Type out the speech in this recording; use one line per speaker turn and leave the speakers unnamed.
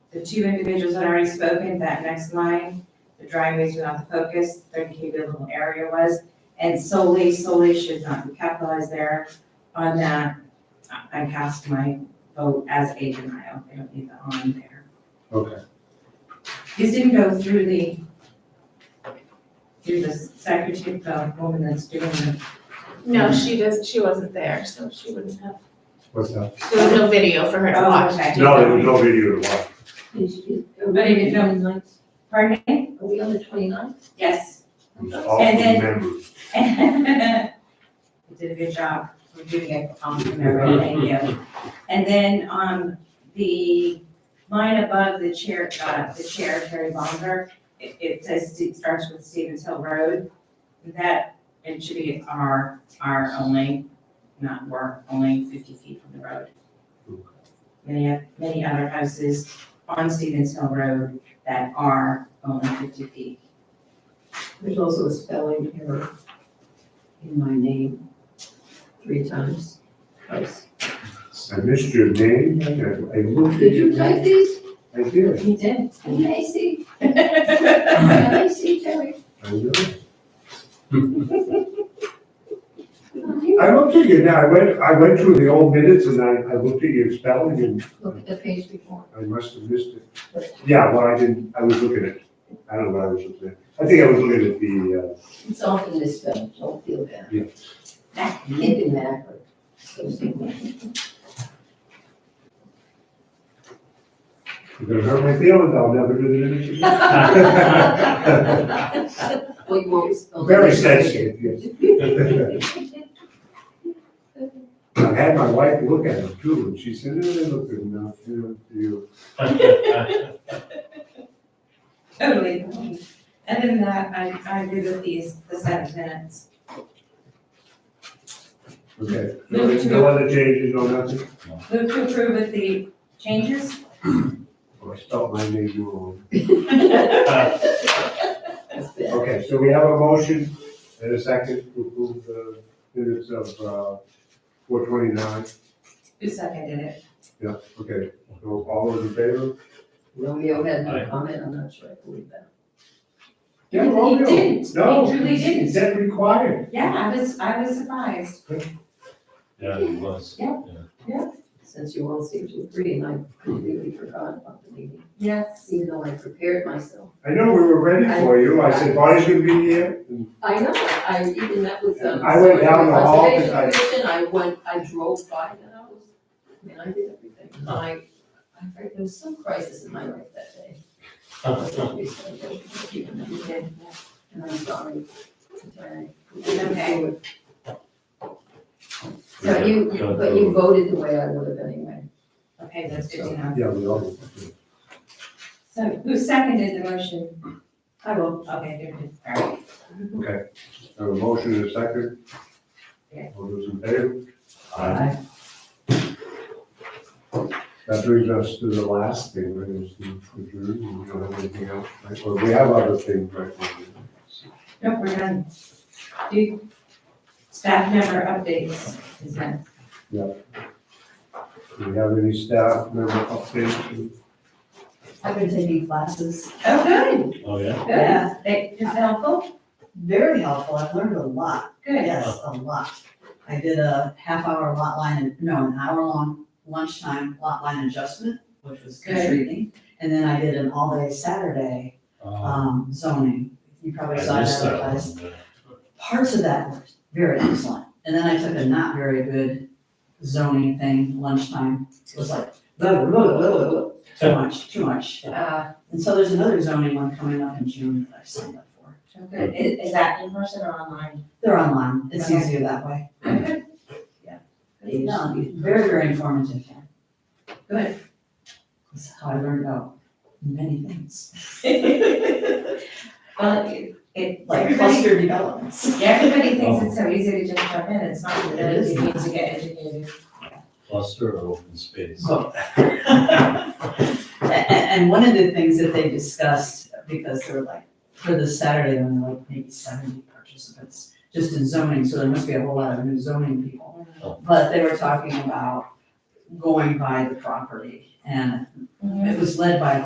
The two individuals had already spoken, that next line, the driveways were not the focus, thirty K buildable area was, and solely, solely should not be capitalized there. On that, I- I cast my vote as a denial, I don't need the on there.
Okay.
These didn't go through the, through the secretary, the woman that's doing the,
No, she does, she wasn't there, so she wouldn't have,
What's that?
there was no video for her to
Oh,
watch.
okay.
No, there was no video to watch.
But it is on
ninth,
pardon me?
are we on the twenty-ninth?
Yes.
It was all
And
from
then-
members.
You did a good job for doing it on camera, thank you. And then on the line above the chair, uh, the chair, Terry Bonner, it, it says, it starts with Stevens Hill Road. That, it should be R, R only, not work, only fifty feet from the road. Many, many other houses on Stevens Hill Road that are only fifty feet.
There's also a spelling error in my name, three times. Twice.
I missed your name and I looked at
Did
your
you type
name.
these?
I did.
You did.
Can I see,
Well,
can I see, Terry?
I know.
Look
I looked at you now. I went, I went through the old minutes and I, I looked at your spelling and
at the page before.
I must have missed it. Yeah, well, I didn't, I was looking at, I don't know what I was looking at. I think I was looking at the, uh,
It's often misspelled, don't feel bad.
Yeah.
Hidden matter. So simple.
uh, you're gonna hurt my feelings, I'll never do the minutes again.
Well, you won't spell.
Very sensitive, yes. I had my wife look at them too, and she said, no, they look good enough, you know, you.
Totally. And then that, I, I agree with these, the seven minutes.
Okay, no, no other changes, no nothing?
Move to approve with the changes?
Oh, I spelled my name wrong.
That's bad.
Okay, so we have a motion and a second to approve the minutes of uh, four twenty-nine.
Who seconded it?
Yeah, okay, so all those in favor?
Romeo had no
Aye.
comment, I'm not sure I believe that.
Yeah,
He
Romeo.
didn't.
No.
He truly didn't.
Is that required?
Yeah, I was, I was surprised.
Yeah, it was.
Since you all seem to agree, and I completely forgot about the meeting,
Yes.
even though I prepared myself.
I know we were ready for you, I said Bonnie's gonna be here, and
I know, I even met with them.
I went down the hall
Conservation
because
Commission, I went, I drove by the house, I mean, I did everything, And I, I heard there was some crisis in my life that day.
You
And
did,
I'm sorry. I'm sorry.
Okay.
So you, but you voted the way I would have anyway.
yeah. Okay, that's good to know.
yeah, we all.
So who seconded the motion?
I will.
Okay, there it is. All right.
Have a motion and a second.
Yeah.
All those in favor?
Aye.
That brings us to the last thing, right, is the adjourn, we don't have anything else, right, or we have other things right now.
Nope, we're done. Do staff member updates is done.
Do we have any staff member updates?
I've been taking classes,
Oh, good,
Oh, yeah?
good. That is helpful.
Very helpful, I've learned a lot,
Good.
yes, a lot. I did a half hour lot line, no, an hour long lunchtime lot line adjustment, which was
Good.
intriguing. And then I did an all day Saturday
Uh,
um, zoning, you
I
probably saw
missed
that
that
last
one.
parts of that were very excellent. And then I took a not very good zoning thing lunchtime. It was like, blah, blah, blah, blah, blah, blah. too much, too much.
uh,
And so there's another zoning one coming up in June that I've signed up for.
So good. Is, is that in person or online?
They're online, it's
Okay.
easier that way.
Okay. Yeah.
It was Very, very informative.
Good.
That's how I learned about many things,
Well, it- it,
like
everybody,
cluster developments.
everybody
Oh.
thinks it's so easy to just jump in, it's not, it
It
really
is
needs to get educated.
Cluster or open space?
So- A- a- And one of the things that they discussed, because there were like, for the Saturday, there were like maybe seventy participants just in zoning, so there must be a whole lot of new zoning people.
Oh.
But they were talking about going by the property and it was led by